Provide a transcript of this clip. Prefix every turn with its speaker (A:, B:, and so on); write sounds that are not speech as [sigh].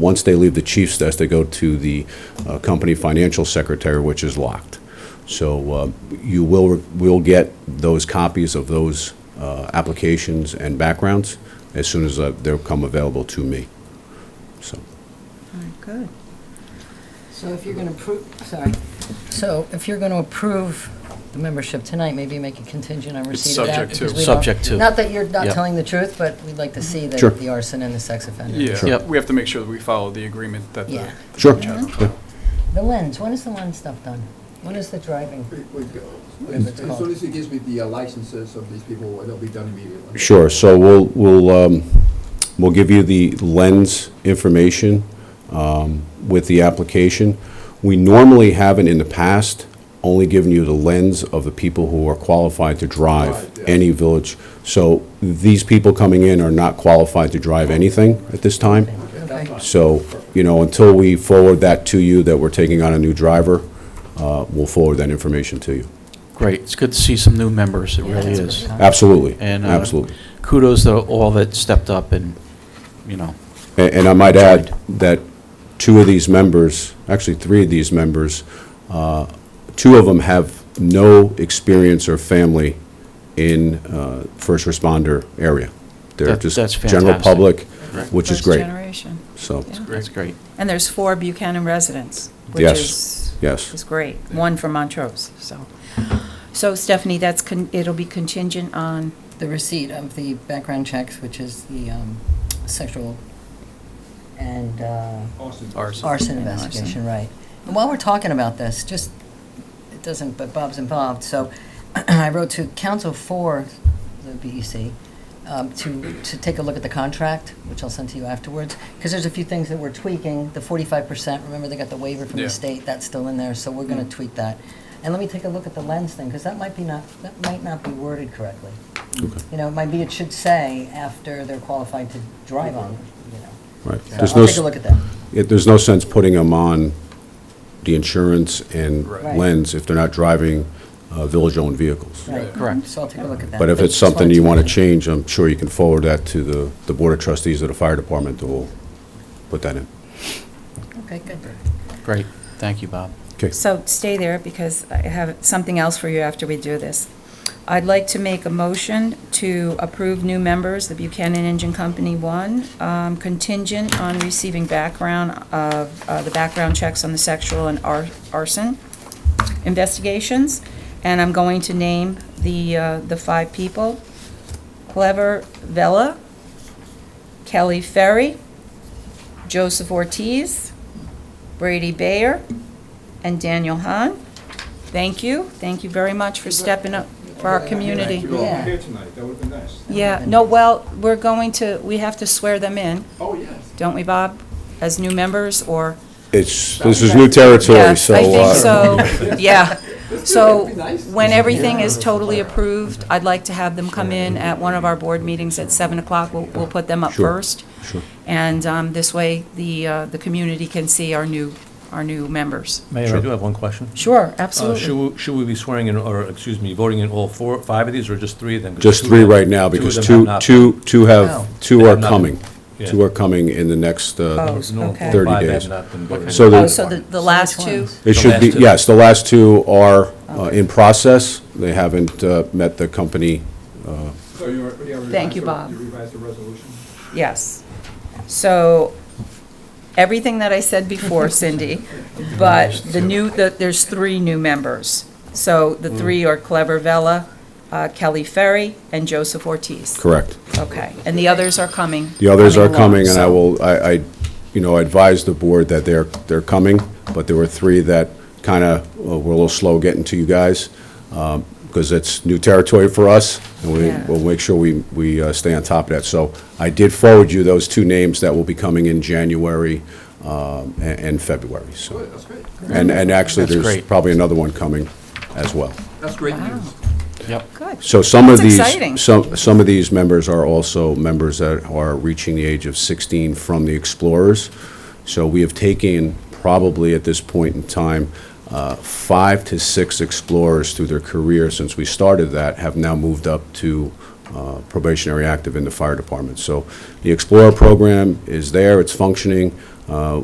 A: Once they leave the chief's desk, they go to the uh, company financial secretary, which is locked. So uh, you will, will get those copies of those uh, applications and backgrounds as soon as uh, they'll come available to me. So,
B: All right, good.
C: So if you're going to approve, sorry, so if you're going to approve the membership tonight, maybe make a contingent on receipt of that?
D: subject to.
C: because we don't-
E: Subject to.
C: Not that you're not
E: Yep.
C: telling the truth, but we'd like to see the
A: Sure.
C: the arson and the sex offender.
D: Yeah,
E: Yep.
D: we have to make sure that we follow the agreement that
C: Yeah.
D: the.
A: sure.
C: The lens, when is the lens stuff done? When is the driving?
F: As as soon as he gives me the uh, licenses of these people, it'll be done immediately.
A: Sure, so we'll, we'll, um, we'll give you the lens information, um, with the application. We normally haven't in the past only given you the lens of the people who are qualified to drive
F: Right, yeah.
A: any village. So these people coming in are not qualified to drive anything at this time. So, you know, until we forward that to you, that we're taking on a new driver, uh, we'll forward that information to you.
E: Great, it's good to see some new members, it really
C: that's
E: is.
C: good.
A: Absolutely,
E: And, uh,
A: absolutely.
E: Kudos to all that stepped up and, you know,
A: A- And I might add that two of these members, actually three of these members, uh, two of them have no experience or family in uh, first responder area. They're
E: That-
A: just
E: that's
A: general
E: fantastic.
A: public, which is
B: First
A: great.
B: generation.
A: So,
B: Yeah.
E: that's great.
B: And there's four Buchanan residents, which
A: Yes,
B: is,
A: yes.
B: is great. One from Montrose, so. So Stephanie, that's, con- it'll be contingent on,
C: The receipt of the background checks, which is the um, sexual and uh,
D: Ours.
C: arson
B: And arson.
C: investigation, right. And while we're talking about this, just, it doesn't, but Bob's involved, so [clears throat] I wrote to counsel for the BEC um, to, to take a look at the contract, which I'll send to you afterwards, because there's a few things that we're tweaking, the 45%, remember they got the waiver from
D: Yeah.
C: the state, that's still in there, so we're going to tweak that. And let me take a look at the lens thing, because that might be not, that might not be worded correctly. You know, it might be, it should say after they're qualified to drive on, you know.
A: right.
C: So
A: There's no
C: I'll
A: s-
C: take a look at that.
A: it- There's no sense putting them on the insurance and
D: Right.
A: lens if they're not driving uh, village-owned vehicles.
C: Right.
E: Correct.
C: So I'll take a look at that.
A: But if it's
C: just wanted
A: something you want to
C: mention.
A: change, I'm sure you can forward that to the, the Board of Trustees of the Fire Department who will put that in.
C: Okay, good.
E: Great, thank you, Bob.
A: Okay.
B: so stay there because I have something else for you after we do this. I'd like to make a motion to approve new members, the Buchanan Engine Company One, um, contingent on receiving background of, uh, the background checks on the sexual and ar- arson investigations. And I'm going to name the, uh, the five people. Clever Vella, Kelly Ferry, Joseph Ortiz, Brady Bayer, and Daniel Hahn. Thank you, thank you very much for stepping up for our community.
F: You're all
C: Yeah.
F: here tonight, that would've been nice.
B: Yeah, no, well, we're going to, we have to swear them in,
F: Oh, yes.
B: don't we, Bob, as new members, or?
A: It's, this is new territory, so. uh,
B: I
A: [laughs]
B: think so, yeah. So
F: That'd be nice.
B: when everything is totally approved, I'd like to have them come in at one of our board meetings at 7 o'clock. We'll, we'll put them up
A: Sure,
B: first.
A: sure.
B: And um, this way, the, uh, the community can see our new, our new members.
G: Mayor, I do have one question. Uh,
B: Sure,
G: Should we, should we be swearing in, or, excuse me, voting in all four, five of these, or just three of them? 'Cause
A: Just
G: two
A: three
G: of them-
A: right now,
G: of
A: because
G: them
A: two,
G: have not-
A: two, two
C: No.
A: have, two
G: They
A: are
G: have not been-
A: coming.
G: Yeah.
A: Two are coming in the next, uh,
B: Oh.
G: It's normal.
B: Okay.
A: 30
G: Five
A: days.
G: have not been voted in.
A: So
B: Oh,
A: the-
B: so the, the last two?
A: it
G: The
A: should be,
G: last two.
A: yes, the last two are uh, in process. They haven't uh, met the company.
F: So you are- you are
B: Thank you,
F: revised the-
B: Bob.
F: You revised the resolution?
B: Yes. So, everything that I said before, Cindy, but the new, the- there's three new members. So
A: Mm.
B: the three are Clever Vella, uh, Kelly Ferry, and Joseph Ortiz.
A: Correct.
B: Okay, and the others are coming.
A: The others are
B: along,
A: coming, and I
B: so-
A: will, I, I, you know, advise the board that they're, they're coming, but there were three that kind of were a little slow getting to you guys, because it's new territory for us, and we,
B: Yeah.
A: we'll make sure we, we uh, stay on top of that. So I did forward you those two names that will be coming in January um, a- and February, so.
F: Good, that's great.
A: And, and actually,
E: That's
A: there's
E: great.
A: probably another one coming as well.
F: That's great news.
E: Yep.
B: Good.
A: So some of
B: That's
A: these,
B: exciting.
A: some some of these members are also members that are reaching the age of 16 from the Explorers. So we have taken probably at this point in time uh, five to six Explorers through their career since we started that have now moved up to uh, probationary active in the fire department. So the Explorer program is there, it's functioning. Uh,